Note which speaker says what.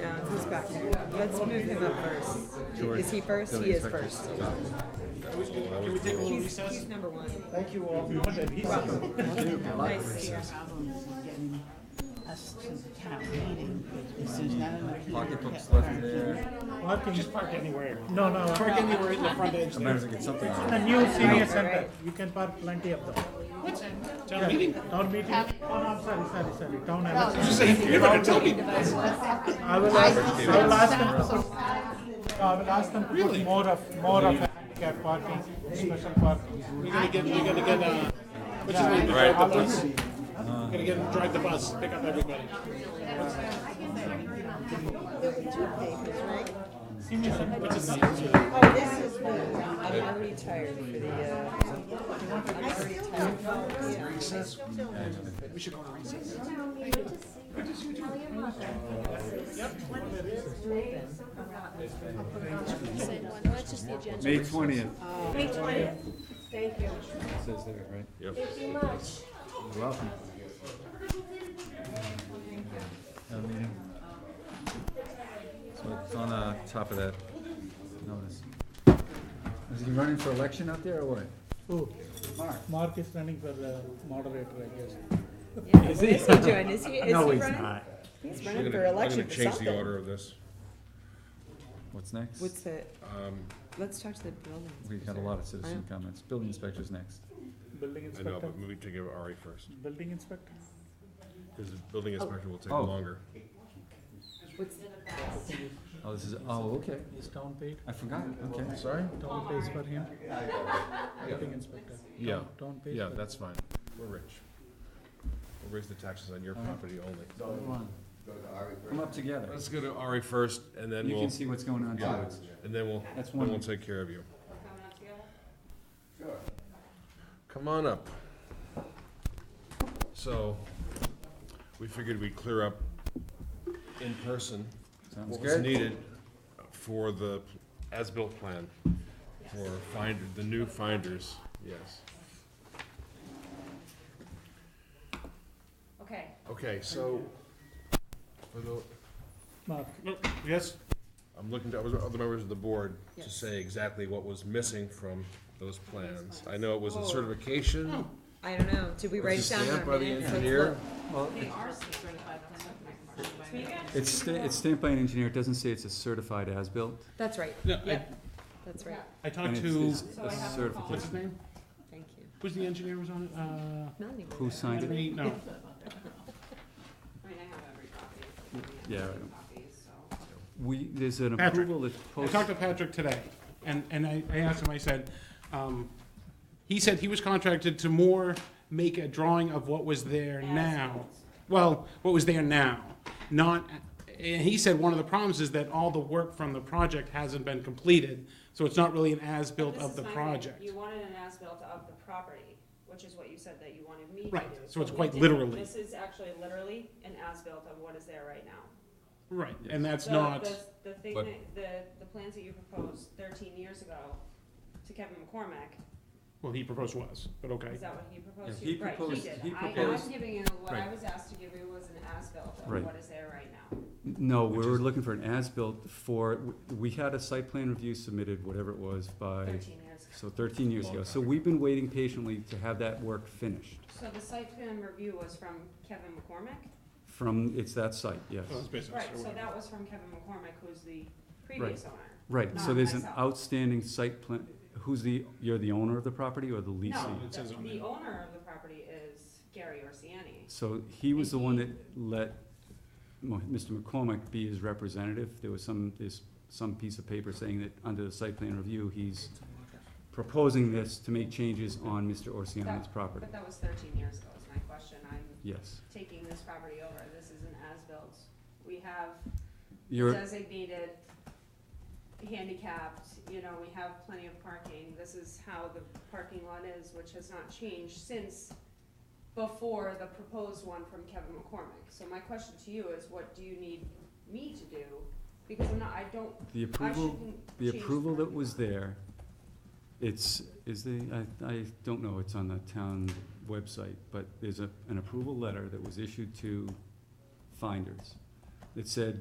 Speaker 1: George's back here. Let's move him up first. Is he first? He is first. He's, he's number one.
Speaker 2: Thank you all.
Speaker 1: Nice to see you.
Speaker 3: problem is getting us to the town meeting, is there's not enough people.
Speaker 4: Pocketbook's
Speaker 3: that
Speaker 4: left
Speaker 3: park
Speaker 4: there.
Speaker 3: here.
Speaker 2: Just park anywhere. No, no.
Speaker 5: Park anywhere in the front edge.
Speaker 4: I might as well get something out of
Speaker 2: The
Speaker 4: it.
Speaker 2: new senior center,
Speaker 1: Right.
Speaker 2: you can park plenty of them.
Speaker 5: Town meeting.
Speaker 2: Town meeting, oh, no, I'm sorry, sorry, sorry, town. I
Speaker 5: Just saying, you're not gonna tell me.
Speaker 2: will ask, I will ask them to put, I will ask them to put more of, more of handicap parking, special parking.
Speaker 5: We're gonna get, we're gonna get, uh, which is gonna drive the bus. Gonna get, drive the bus, pick up everybody.
Speaker 3: There were two papers, right?
Speaker 2: Senior center.
Speaker 5: Which is not,
Speaker 3: Oh, this is me.
Speaker 1: I'm already tired for the, uh,
Speaker 3: I still don't know.
Speaker 5: we should go on recess.
Speaker 6: That's just the agenda.
Speaker 4: May twentieth.
Speaker 6: May twentieth. Thank you.
Speaker 4: Says there, right? Yep.
Speaker 6: Thank you much.
Speaker 4: You're welcome. Town meeting. So it's on the top of that notice. Is he running for election out there or what?
Speaker 2: Who? Mark. Mark is running for the moderator, I
Speaker 1: is
Speaker 2: guess.
Speaker 1: he doing? Is he, is he
Speaker 2: No, he's
Speaker 1: running?
Speaker 2: not.
Speaker 1: He's
Speaker 7: We're
Speaker 1: running
Speaker 7: gonna-
Speaker 1: for election
Speaker 7: We're
Speaker 1: for
Speaker 7: gonna change the
Speaker 1: something.
Speaker 7: order of this.
Speaker 4: What's next?
Speaker 1: What's it?
Speaker 7: Um,
Speaker 1: Let's talk to the building.
Speaker 4: We got a lot of citizen comments. Building inspector's next.
Speaker 2: Building
Speaker 7: I know,
Speaker 2: inspector,
Speaker 7: but maybe to give Ari first,
Speaker 2: building inspector.
Speaker 7: because the building inspector will take
Speaker 4: Oh.
Speaker 7: longer.
Speaker 1: What's,
Speaker 4: Oh, this is, oh, okay.
Speaker 2: Is town paid?
Speaker 4: I forgot. Okay, sorry.
Speaker 2: Town pays for him? Building inspector.
Speaker 7: Yeah,
Speaker 2: Town pays
Speaker 7: yeah,
Speaker 2: for
Speaker 7: that's fine. We're rich. We'll raise the taxes on your property only.
Speaker 4: Come on. Come up together.
Speaker 7: Let's go to Ari first, and then
Speaker 4: You
Speaker 7: we'll,
Speaker 4: can see what's going on too.
Speaker 7: and then we'll,
Speaker 4: That's
Speaker 7: then we'll
Speaker 4: one.
Speaker 7: take care of you. Come on up. So, we figured we'd clear up in person
Speaker 4: Sounds
Speaker 7: what was
Speaker 4: good.
Speaker 7: needed for the as-built plan for finder, the new finders, yes.
Speaker 6: Okay.
Speaker 7: Okay, so, for the,
Speaker 2: Mark,
Speaker 5: Yes?
Speaker 7: I'm looking to other other members of the board to
Speaker 1: Yes.
Speaker 7: say exactly what was missing from those plans. I know it was a
Speaker 1: Whoa.
Speaker 7: certification,
Speaker 1: I don't know. Did we Oh. write
Speaker 7: it's
Speaker 1: it down? in
Speaker 7: stamped
Speaker 1: our
Speaker 7: by the
Speaker 1: minutes? Let's
Speaker 7: engineer.
Speaker 1: look.
Speaker 4: Well, It's, sta- it's stamped by an engineer, it doesn't say it's a certified as-built.
Speaker 1: That's right.
Speaker 5: Yeah, I,
Speaker 1: Yep, that's right.
Speaker 5: I
Speaker 4: and
Speaker 5: talked
Speaker 4: it's-
Speaker 5: to,
Speaker 4: it's a
Speaker 5: what's his
Speaker 4: certification.
Speaker 5: name?
Speaker 1: Thank you.
Speaker 5: Who's the engineer was on it? Uh,
Speaker 1: Not anymore.
Speaker 4: Who signed it?
Speaker 5: Henry, no.
Speaker 4: Yeah. right. We, there's an
Speaker 5: Patrick.
Speaker 4: approval that's
Speaker 5: I
Speaker 4: post.
Speaker 5: talked to Patrick today, and, and I, I asked him, I said, um, he said he was contracted to more make a drawing of what was there now. Well, what was there now, not, and he said one of the problems is that all the work from the project hasn't been completed, so it's not really an as-built
Speaker 8: This
Speaker 5: of
Speaker 8: is
Speaker 5: the
Speaker 8: my thing.
Speaker 5: project.
Speaker 8: You wanted an as-built of the property, which is what you said that you wanted me to do.
Speaker 5: Right, so
Speaker 8: but
Speaker 5: it's
Speaker 8: we
Speaker 5: quite
Speaker 8: didn't.
Speaker 5: literally.
Speaker 8: This is actually literally an as-built of what is there right now.
Speaker 5: Right, and that's
Speaker 8: So
Speaker 5: not,
Speaker 8: The, the thing
Speaker 7: But-
Speaker 8: that, the, the plans that you proposed thirteen years ago to Kevin McCormack,
Speaker 5: well, he proposed was, but okay.
Speaker 8: is that what he proposed
Speaker 4: Yeah,
Speaker 8: to you?
Speaker 4: he proposed-
Speaker 8: Right,
Speaker 4: he
Speaker 8: he did. I,
Speaker 4: proposed-
Speaker 8: I'm giving you, what I
Speaker 4: Right.
Speaker 8: was asked to give you was an as-built of
Speaker 4: Right.
Speaker 8: what is there right now.
Speaker 4: No, we were looking for an as-built for, we had a site plan review submitted, whatever it was, by,
Speaker 8: Thirteen years.
Speaker 4: so thirteen years
Speaker 7: Long
Speaker 4: ago.
Speaker 7: time
Speaker 4: So we've been waiting patiently to have that work finished
Speaker 8: So the site plan review was from Kevin McCormack?
Speaker 4: from, it's that site, yes.
Speaker 5: So it's business
Speaker 8: Right,
Speaker 5: or
Speaker 8: so
Speaker 5: whatever.
Speaker 8: that was from Kevin McCormack, who's the previous owner.
Speaker 4: Right, so
Speaker 8: Not
Speaker 4: there's an
Speaker 8: myself.
Speaker 4: outstanding site plan, who's the, you're the owner of the property or the
Speaker 8: No,
Speaker 4: leasing?
Speaker 5: It
Speaker 8: the,
Speaker 5: says on
Speaker 8: the
Speaker 5: there.
Speaker 8: owner of the property is Gary Orsiani.
Speaker 4: So he was the one that let Mo- Mr. McCormick be his representative. There was some, there's some piece of paper saying that under the site plan review, he's proposing this to make changes on Mr. Orsiano's property.
Speaker 8: But that was thirteen years ago, is my question. I'm
Speaker 4: Yes.
Speaker 8: taking this property over. This is an as-built. We have
Speaker 4: You're,
Speaker 8: designated handicapped, you know, we have plenty of parking. This is how the parking lot is, which has not changed since before the proposed one from Kevin McCormick. So my question to you is, what do you need me to do? Because I'm not, I don't,
Speaker 4: the
Speaker 8: I
Speaker 4: approval,
Speaker 8: shouldn't
Speaker 4: the
Speaker 8: change
Speaker 4: approval that
Speaker 8: property.
Speaker 4: was there, it's, is the, I, I don't know, it's on the town website, but there's a, an approval letter that was issued to finders that said,